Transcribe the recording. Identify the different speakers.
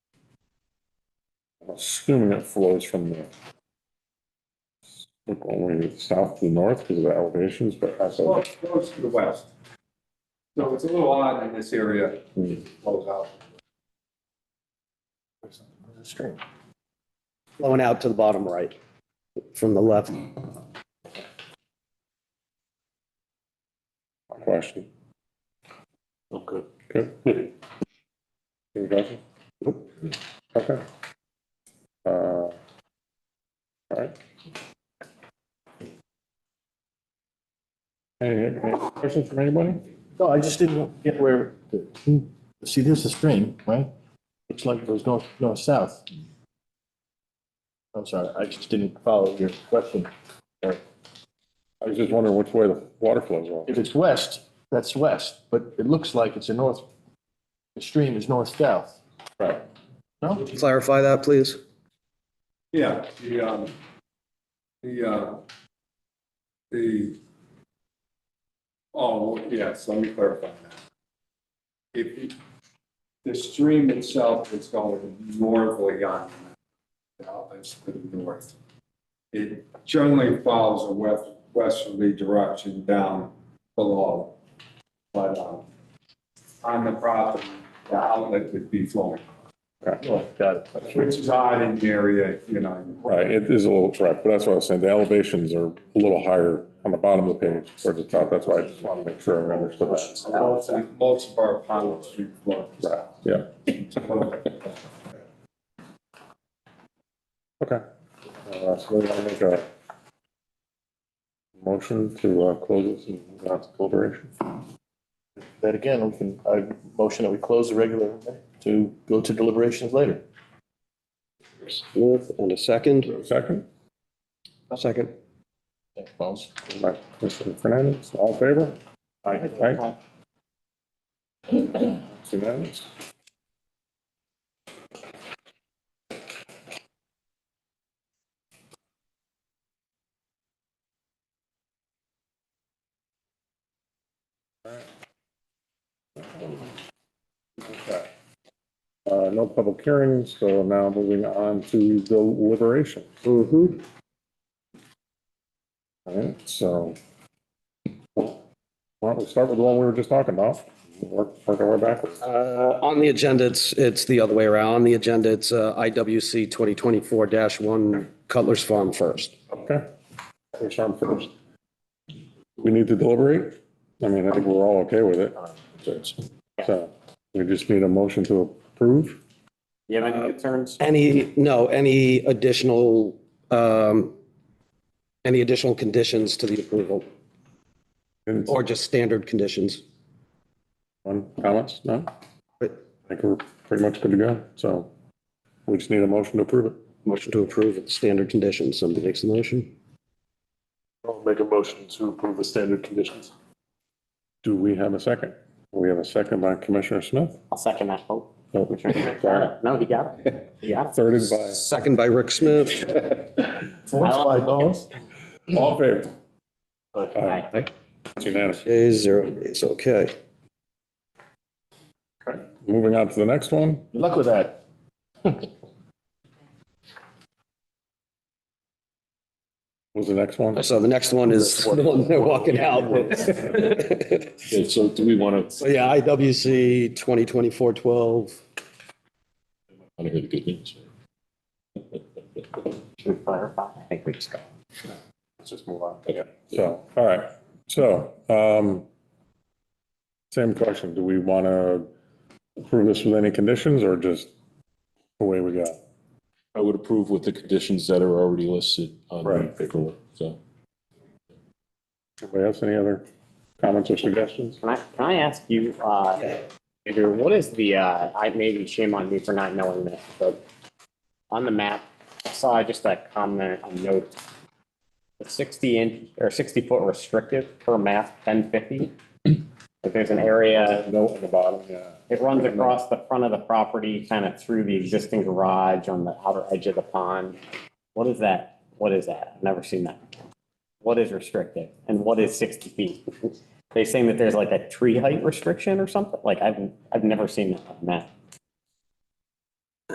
Speaker 1: assuming it flows from the look only south to north because of the elevations, but that's,
Speaker 2: Well,
Speaker 1: a-
Speaker 2: it flows to the west. So it's a little odd in this area,
Speaker 1: Hmm.
Speaker 2: it flows out.
Speaker 3: The stream. Flowing out to the bottom right from the left.
Speaker 1: question.
Speaker 4: Okay.
Speaker 1: Good. Any questions? Okay. Uh, All right. Any any questions from anybody?
Speaker 4: No, I just didn't get where, the- see, there's a stream, right? It's like it goes north, north, south. I'm sorry, I just didn't follow your question.
Speaker 1: I was just wondering which way the water flows off.
Speaker 4: If it's west, that's west, but it looks like it's a north, the stream is north, south.
Speaker 1: Right.
Speaker 4: No?
Speaker 3: Clarify that, please.
Speaker 2: Yeah, the, um, the, uh, the, oh, yes, let me clarify that. If, you- the stream itself is going northerly on, the mountains to the north. It generally follows a west, westerly direction down below. But, um, on the property, the outlet would be flowing,
Speaker 4: Oh, Got it.
Speaker 2: which is odd in the area, you know.
Speaker 1: Right, it is a little trap, but that's what I was saying, the elevations are a little higher on the bottom of the page towards the top, that's why I just wanted to make sure I understood that.
Speaker 2: Most of- most of our ponds are flood.
Speaker 1: Right, yeah, okay. Uh, So we want to make a motion to uh, close this and move on to deliberation.
Speaker 4: That again, we can, I motion that we close the regular to go to deliberations later.
Speaker 3: Smith and a second.
Speaker 1: Second,
Speaker 3: Second.
Speaker 4: Thanks, Bones.
Speaker 1: by Mr. Fernandez, all in favor? Aye. It's Unanimous? Okay. Uh, no public hearings, so now moving on to deliberation.
Speaker 3: Mm-hmm.
Speaker 1: All right, so. Why don't we start with the one we were just talking about? Work, work our way backwards.
Speaker 3: Uh, On the agenda, it's, it's the other way around. On the agenda, it's uh, IWC 2024-1 Cutler's Farm first.
Speaker 1: Okay. We start first. We need to deliberate? I mean, I think we're all okay with it. So we just need a motion to approve.
Speaker 5: You have
Speaker 4: Uh,
Speaker 5: any concerns?
Speaker 3: Any, no, any additional, um, any additional conditions to the approval
Speaker 1: And
Speaker 3: or just standard conditions?
Speaker 1: one, comments? No? I
Speaker 3: Right.
Speaker 1: think we're pretty much good to go. So we just need a motion to approve it.
Speaker 3: Motion to approve with standard conditions. Somebody makes the motion?
Speaker 6: I'll make a motion to approve the standard conditions.
Speaker 1: Do we have a second? We have a second by Commissioner Smith.
Speaker 5: I'll second that. Oh,
Speaker 1: Oh, sorry.
Speaker 5: no, he got it. He got
Speaker 1: Thirded by.
Speaker 3: Second by Rick Smith.
Speaker 4: Voiced by Bones.
Speaker 1: All in favor?
Speaker 5: it. Aye.
Speaker 1: It's unanimous.
Speaker 3: Days, zero days, okay.
Speaker 1: Moving on to the next one.
Speaker 4: Good luck with that.
Speaker 1: Was the next one?
Speaker 3: So the next one is the one they're walking out.
Speaker 6: Okay, so do we want
Speaker 3: So
Speaker 6: to,
Speaker 3: yeah, IWC 2024-12.
Speaker 6: I don't hear the good news.
Speaker 5: Should we clarify? I think we just go.
Speaker 1: Let's just move on. So, all right. So, um, same question. Do we want to approve this with any conditions or just away we go?
Speaker 6: I would approve with the conditions that are already listed on the
Speaker 1: Right.
Speaker 6: paperwork, so.
Speaker 1: Anybody else, any other comments or suggestions?
Speaker 5: Can I, can I ask you, uh, Andrew, what is the, uh, I maybe shame on me for not knowing this, but on the map, I saw just a comment, a note, the sixty inch or sixty foot restrictive per map, ten fifty. Like there's an area. Note in the bottom, yeah. It runs across the front of the property, kind of through the existing garage on the outer edge of the pond. What is that? What is that? I've Never seen that. What is restrictive and what is sixty feet? They saying that there's like a tree height restriction or something? Like I've, I've never seen that on a map.